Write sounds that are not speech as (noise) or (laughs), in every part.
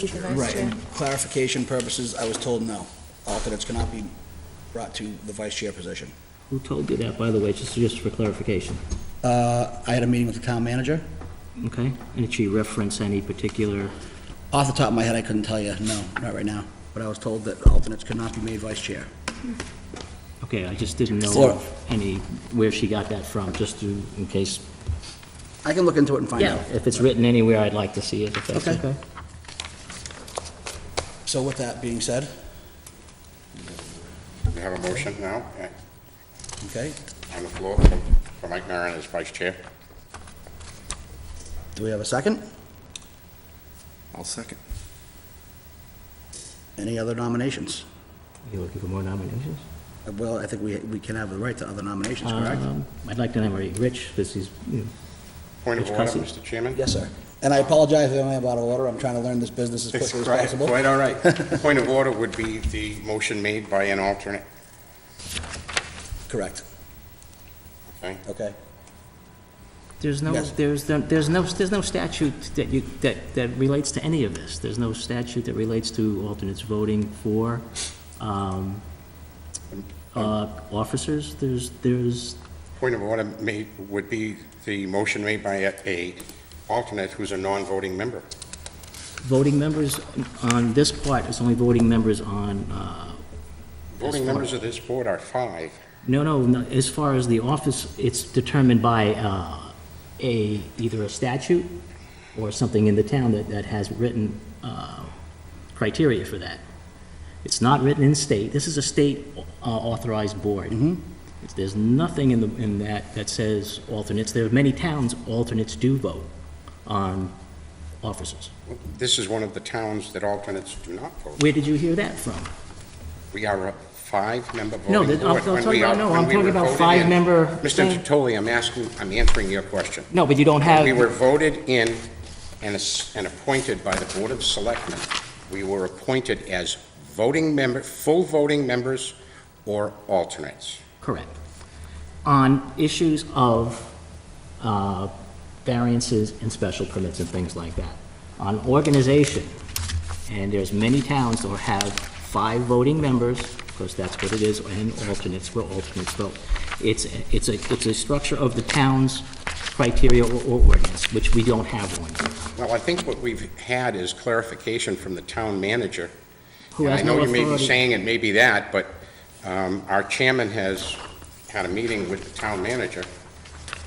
be the vice Right, chair. and clarification purposes, I was told no. Alternates cannot be brought to the vice chair position. Who told you that, by the way, just, just for clarification? Uh, I had a meeting with the town manager. Okay? And did she reference any particular, Off the top of my head, I couldn't tell you, no, not right now. But I was told that alternates could not be made vice chair. okay, I just didn't know Or- of any, where she got that from, just to, in case. I can look into it and find out. If it's written anywhere, I'd like to see it, if that's Okay. okay. So with that being said, We have a motion now eh, okay, on the floor for- for Mike Maron as vice chair. Do we have a second? I'll second. Any other nominations? You looking for more nominations? Uh, Well, I think we, we can have the right to other nominations, correct? Um, I'd like to nominate Rich, because he's, you know, Point of Mr. order, Cussie. Mr. Chairman? yes, sir. And I apologize if I'm out of order, I'm trying to learn this business as It's quickly as quite- possible. Quite all right. (laughs) Point of order would be the motion made by an alternate, Correct, okay? okay. There's no, Yes. there's, there's no, there's no statute that you, that, that relates to any of this. There's no statute that relates to alternates voting for, um, uh, officers. There's, there's, Point of order made, would be the motion made by a- a alternate who's a non-voting member. voting members on this part, it's only voting members on, uh, Voting members of this board are five. no, no, no, as far as the office, it's determined by, uh, a, either a statute or something in the town that, that has written, uh, criteria for that. It's not written in state, this is a state uh, authorized board. It's- There's nothing in the, in that, that says alternates, there are many towns, alternates do vote on officers. This is one of the towns that alternates do not vote. Where did you hear that from? We are a five-member No, voting that- board. I'm I'm When talking we about, are- no, when I'm we talking were about voted in- five-member Mr. thing. Tertoli, I'm asking, I'm answering your question. No, but you don't have, We were voted in and ass- and appointed by the Board of Selectmen. We were appointed as voting member, full voting members or alternates. correct. On issues of uh, variances and special permits and things like that. On organization, and there's many towns that have five voting members, because that's what it is, and alternates, where alternates vote. It's, it's a, it's a structure of the town's criteria or or ordinance, which we don't have one. Well, I think what we've had is clarification from the town manager. Who And has no I know you may be authority. saying it may be that, but um, our chairman has had a meeting with the town manager.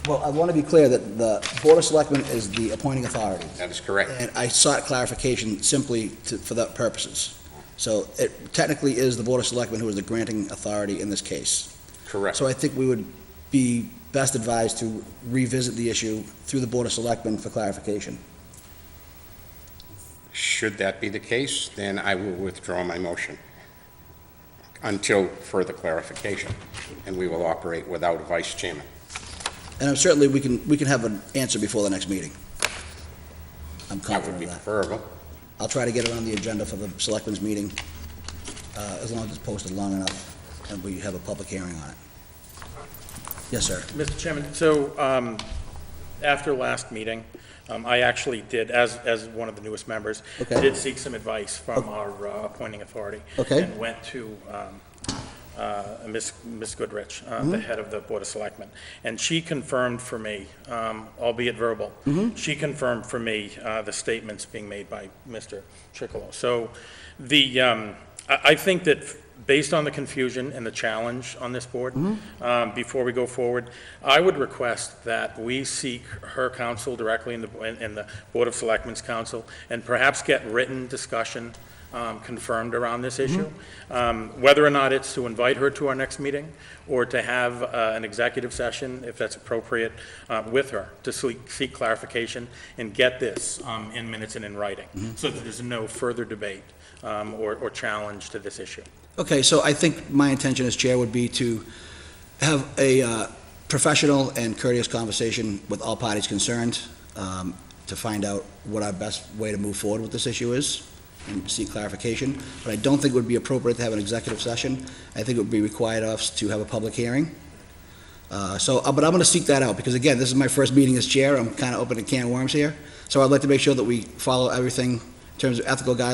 Well, I want to be clear that the Board of Selectmen is the appointing authority, That is correct. and I sought clarification simply to, for that purposes. So it technically is the Board of Selectmen who is the granting authority in this case. Correct. So I think we would be best advised to revisit the issue through the Board of Selectmen for clarification. Should that be the case, then I will withdraw my motion until further clarification, and we will operate without a vice chairman. And certainly, we can, we can have an answer before the next meeting. I'm That would confident be of that. preferable. I'll try to get it on the agenda for the Selectmen's meeting, uh, as long as it's posted long enough, and we have a public hearing on it. Yes, sir. Mr. Chairman, so um, after last meeting, um, I actually did, as, as one of the newest members, Okay. did seek some advice from our uh, appointing authority. Okay. And went to um, uh, Ms. Ms. Goodrich, uh, the head of the Board of Selectmen. And she confirmed for me, um, albeit verbal, she confirmed for me uh, the statements being made by Mr. Chicolo. So the, um, I I think that based on the confusion and the challenge on this board, um, before we go forward, I would request that we seek her counsel directly in the, in- in the Board of Selectmen's counsel, and perhaps get written discussion um, confirmed around this issue. Um, Whether or not it's to invite her to our next meeting, or to have uh, an executive session, if that's appropriate, uh, with her, to seek seek clarification and get this um, in minutes and in writing, so that there's no further debate um, or or challenge to this issue. Okay, so I think my intention as chair would be to have a uh, professional and courteous conversation with all parties concerned um, to find out what our best way to move forward with this issue is and seek clarification. But I don't think it would be appropriate to have an executive session. I think it would be required of us to have a public hearing. Uh, So, uh, but I'm going to seek that out because again, this is my first meeting as chair. I'm kind of opening a can of worms here. So I'd like to make sure that we follow everything terms of ethical guidelines